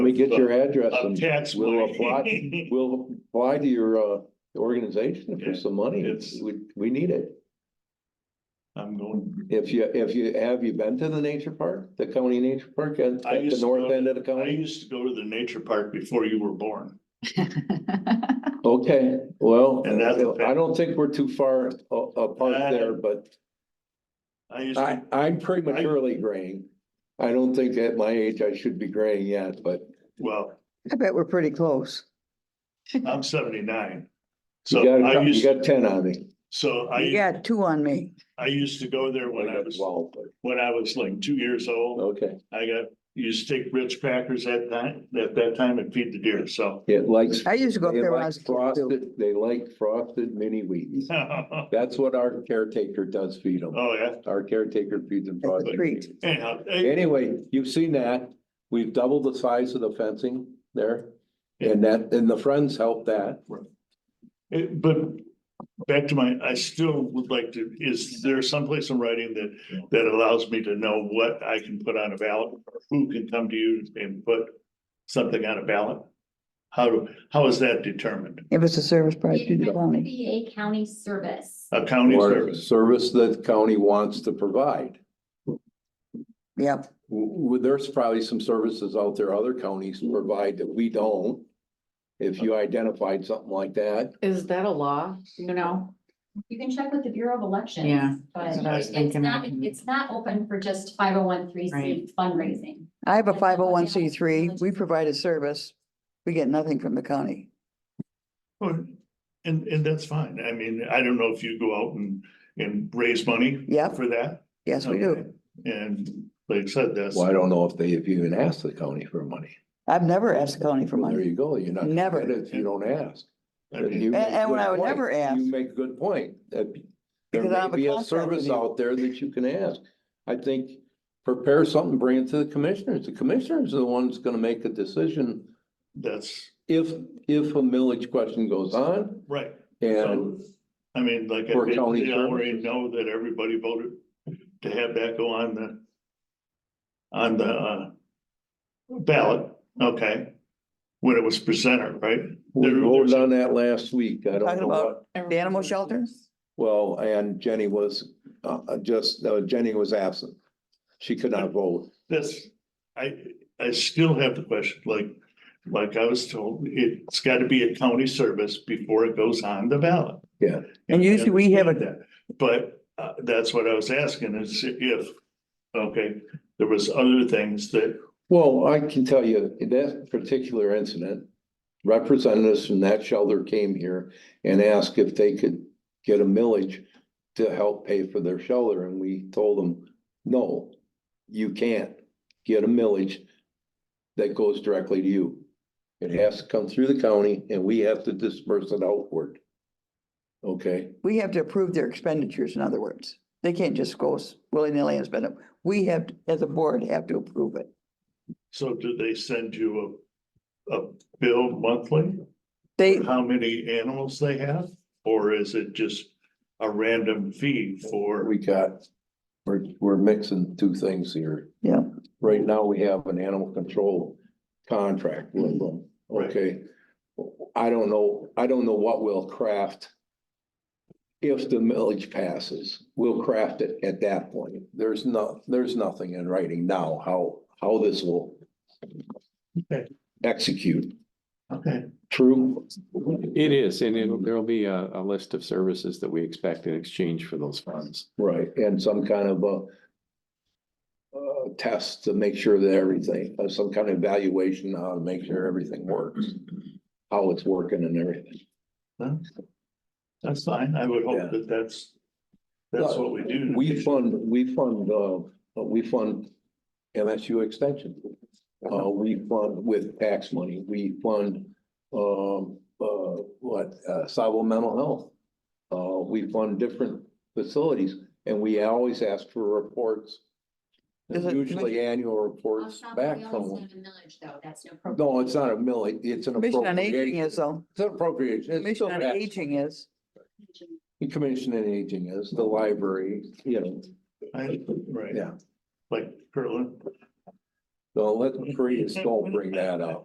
we get your address Of and tax we'll apply, money. we'll apply to your, uh, organization for Yeah, some money. it's- We, we need it. I'm going, If you, if you, have you been to the nature park, the county nature park at, I at the used to go north to- end of the I county? used to go to the nature park before you were born. Okay, well, And that's a fact. I don't think we're too far a- apart Uh, there, but I used I, to, I'm prematurely graying. I don't think at my age I should be graying yet, but well, I bet we're pretty close. I'm seventy-nine. you So got, I a- you used, got ten on me. so You I, got two on me. I used to go there when I was, Well, but- when I was like two years old. Okay, I got, used to take Ritz crackers at that, at that time and feed the deer, so. it likes, I used to go up they there when I like was a kid too. frosted, they like frosted mini wheats. Oh, That's what our caretaker does feed them. yeah, Our caretaker feeds them. That's a frosted treat. Wheaties. anyhow, eh, Anyway, you've seen that. We've doubled the size of the fencing there. And that, and the friends helped that. eh, but back to my, I still would like to, is there someplace in writing that, that allows me to know what I can put on a ballot? or Who can come to you and put something on a ballot? How, do how is that determined? It was a service project to It the has to county. be a county service. Uh, A county Or service? service that the county wants to provide. Yep, W- w- there's probably some services out there other counties provide that we don't. If you identified something like that, Is that a law, you know? You can check with the Bureau of Elections. Yeah, But that's what I was it's thinking. not, it's not open for just five oh one three Right. C fundraising. I have a five oh one C three. We provide a service. We get nothing from the county. Or- Oh, And, and that's fine. I mean, I don't know if you go out and, and raise money Yep, for that. yes, we do. And like I said, that's. well, I don't know if they, if you even ask the county for money. I've never asked the county for Well, There money. you go, you're not. gonna Never. get it If you don't ask. I mean, You make And- and when good I would point. never You ask. make a good point, that be- there Because I may have a be a contract service with you. out there that you can ask. I think prepare something, bring it to the commissioners. The commissioners are the ones gonna make a decision That's if, if a millage question goes on right. So, and I mean, like, I For did- county they already services. know that everybody voted to have that go on the on the uh ballot, okay? When it was presented, right? we There- voted there's- on that last week. I don't Talking know about what. The animal shelter? Well, and Jenny was, uh, uh, just, uh, Jenny was absent. She could not vote. That's, I, I still have the question, like, like I was told, it's gotta be a county service before it goes on the ballot. Yeah. And usually we have a- that, But, uh, that's what I was asking is if, okay, there was other things that, Well, I can tell you, in that particular incident, representatives from that shelter came here and asked if they could get a millage to help pay for their shelter, and we told them, no, you can't get a millage that goes directly to you. It has to come through the county, and we have to disperse it outward. Okay, We have to approve their expenditures, in other words. They can't just go s- willy-nilly and spend it. We have, to- as a board, have to approve it. so do they send you a, a bill monthly? They, How many animals they have? Or is it just a random fee for? we got, we're, we're mixing two things here. yeah, Right now, we have an animal control contract with them, Right. okay? I don't know, I don't know what we'll craft. If the millage passes, we'll craft it at that point. There's no, there's nothing in writing now how, how this will Okay. execute. Okay, True, It is, and it'll, there'll be a, a list of services that we expect in exchange for those funds. right, and some kind of a uh, test to make sure that everything, uh, some kind of evaluation, how to make sure everything works, how it's working and everything. then, that's fine. I would Yeah. hope that that's, that's what we do. We fund, we fund, uh, we fund MSU extension. Uh-huh. Uh, we fund with tax money, we fund, um, uh, what, uh, Sabo Mental Health. Uh, we fund different facilities and we always ask for reports. Is it- Usually annual On reports top of back the from always them. have a millage, though, that's no problem. No, it's not a milli, it's an Commission on Aging appropriation. is though. It's an appropriation. It's Commission still on tax. Aging is, The Commission on Aging is the library, you know, I- Right. Yeah. Like Kirtland. so let Maria still bring that up.